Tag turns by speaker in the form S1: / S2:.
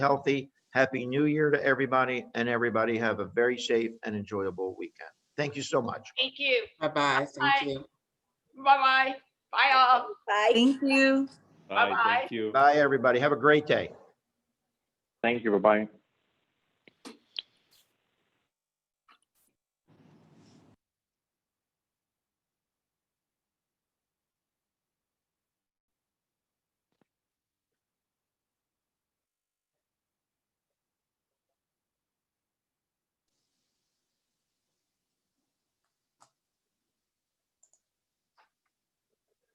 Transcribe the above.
S1: healthy. Happy New Year to everybody, and everybody have a very safe and enjoyable weekend. Thank you so much.
S2: Thank you.
S3: Bye-bye,
S2: Bye.
S3: thank you.
S2: Bye-bye. Bye all.
S4: Thank you.
S5: Bye,
S2: Bye-bye.
S5: thank you.
S1: Bye, everybody. Have a great day.
S6: Thank you, bye-bye.